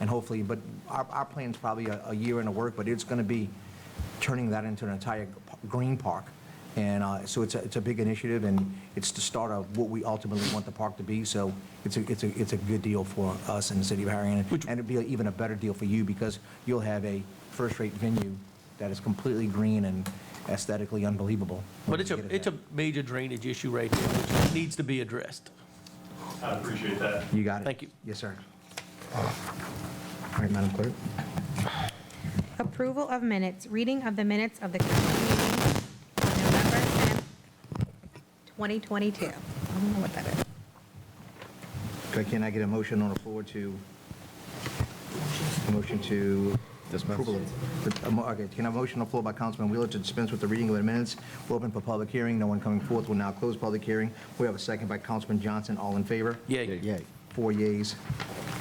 and hopefully, but our, our plan's probably a, a year in the work, but it's going to be turning that into an entire p- green park. And uh, so it's a, it's a big initiative, and it's the start of what we ultimately want the park to be. So it's a, it's a, it's a good deal for us in the city of Harahan, and it'd be even a better deal for you because you'll have a first-rate venue that is completely green and aesthetically unbelievable. when But it's you a, get it it's a there. major drainage issue right there, which needs to be addressed. I appreciate that. You got it. Thank you. Yes, sir. All right, Madam Clerk. Approval of minutes, reading of the minutes of the council meeting on November 10th, 2022. I don't know what that is. Okay, Can I get a motion on the floor to, a motion to approval? of- a mo- Okay, can I have a motion on the floor by Councilman Wheeler to dispense with the reading of the minutes? We're open for public hearing, no one coming forth, we'll now close public hearing. We have a second by Councilman Johnson, all in favor? Yay. Yay. Four yeas,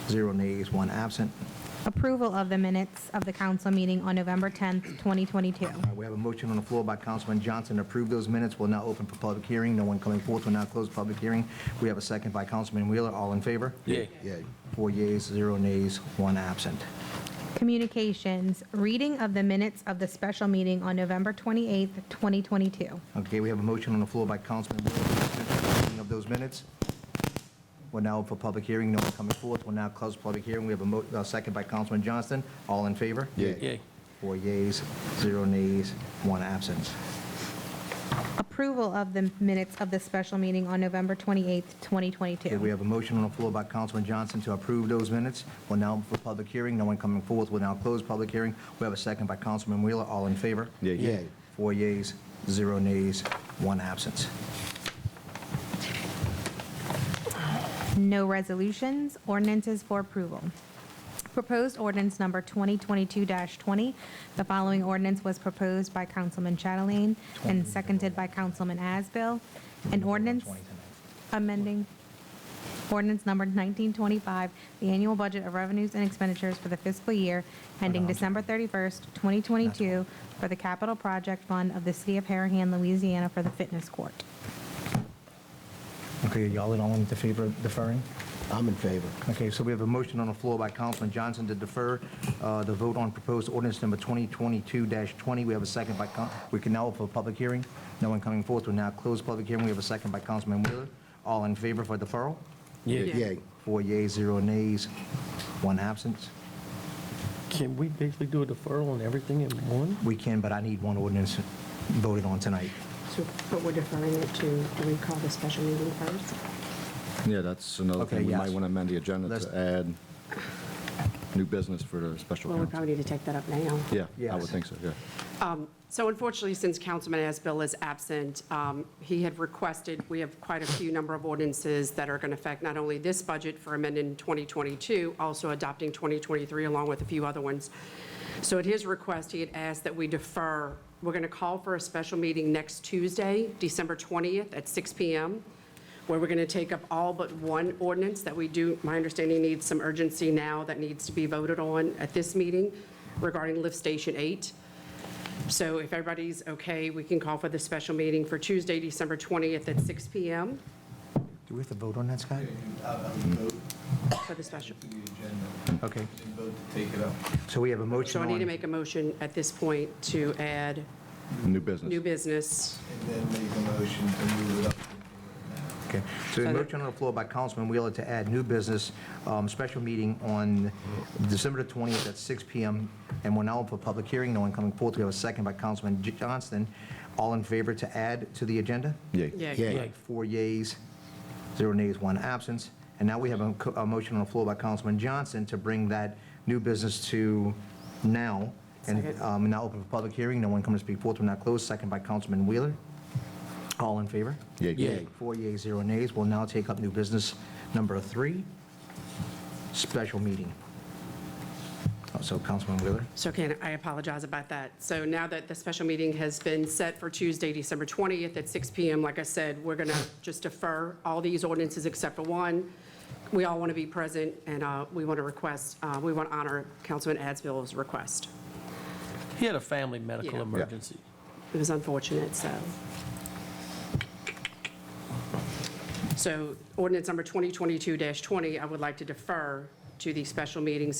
zero nays, one absent. Approval of the minutes of the council meeting on November 10th, 2022. All right, Uh, we have a motion on the floor by Councilman Johnson to approve those minutes, we'll now open for public hearing, no one coming forth, we'll now close public hearing. We have a second by Councilman Wheeler, all in favor? Yay. Four yeas, zero nays, one absent. Communications, reading of the minutes of the special meeting on November 28th, 2022. Okay, we have a motion on the floor by Councilman Wheeler for suspension of the reading of those minutes. We're now for public hearing, no one coming forth. We'll now close public hearing. We have a mo, uh, second by Councilman Johnston. All in favor? Yay. Four yeas, zero nays, one absence. Approval of the minutes of the special meeting on November 28th, Okay, we 2022. have a motion on the floor by Councilman Johnson to approve those minutes. We're now for public hearing, no one coming forth. We'll now close public hearing. We have a second by Councilman Wheeler. All in favor? Yay. Four yeas, zero nays, one absence. No resolutions, ordinances for approval. Proposed ordinance number 2022-20. The following ordinance was proposed by Councilman Chatelain and seconded by Councilman Asbill. An ordinance Twenty tonight. amending ordinance number 1925, the annual budget of revenues and expenditures for the fiscal year ending December 31st, 2022, for the capital project fund of the city of Harahan, Louisiana, for the fitness court. Okay, y'all in all in favor of deferring? I'm in favor. Okay, so we have a motion on the floor by Councilman Johnson to defer uh, the vote on proposed ordinance number 2022-20. We have a second by, Coun- we can now open a public hearing. No one coming forth. We'll now close public hearing. We have a second by Councilman Wheeler. All in favor for deferral? Yay. Yay. Four yeas, zero nays, one absence. Can we basically do a deferral on everything in one? We can, but I need one ordinance voted on tonight. So, but we're deferring it to, do we call the special meeting first? Yeah, that's another Okay, thing. We yes. might want to amend the agenda Let's- to add new business for the special Well, we council. probably need to take that up now. Yeah, I would Yes. think so, yeah. So unfortunately, since Councilman Asbill is absent, um, he had requested, we have quite a few number of ordinances that are going to affect not only this budget for amending in 2022, also adopting 2023 along with a few other ones. So at his request, he had asked that we defer, we're going to call for a special meeting next Tuesday, December 20th at 6 PM, where we're going to take up all but one ordinance that we do, my understanding needs some urgency now that needs to be voted on at this meeting regarding lift station eight. So if everybody's okay, we can call for the special meeting for Tuesday, December 20th at 6 PM Do we have to vote on that, Scott? for the special. Okay. So we have a motion So I on... need to make a motion at this point to add New business. new business. Okay, so the motion on the floor by Councilman Wheeler to add new business, um, special meeting on December the 20th at 6 PM, and we're now for public hearing, no one coming forth. We have a second by Councilman J- Johnston. All in favor to add to the agenda? Yay. Yeah. Yay. Yay. Four yeas, zero nays, one absence. And now we have a co- a motion on the floor by Councilman Johnson to bring that new business to now, and Second. um, now open for public hearing, no one coming to speak forth, we're now closed. Second by Councilman Wheeler. All in favor? Yay. Yay. Four yeas, zero nays. We'll now take up new business number three, special meeting. Oh, So Councilman Wheeler? So can, I apologize about that. So now that the special meeting has been set for Tuesday, December 20th at 6 PM, like I said, we're going to just defer all these ordinances except for one. We all want to be present, and uh, we want to request, uh, we want to honor Councilman Adsville's request. He had a family medical Yeah. emergency. It was unfortunate, so. So ordinance number 2022-20, I would like to defer to the special meetings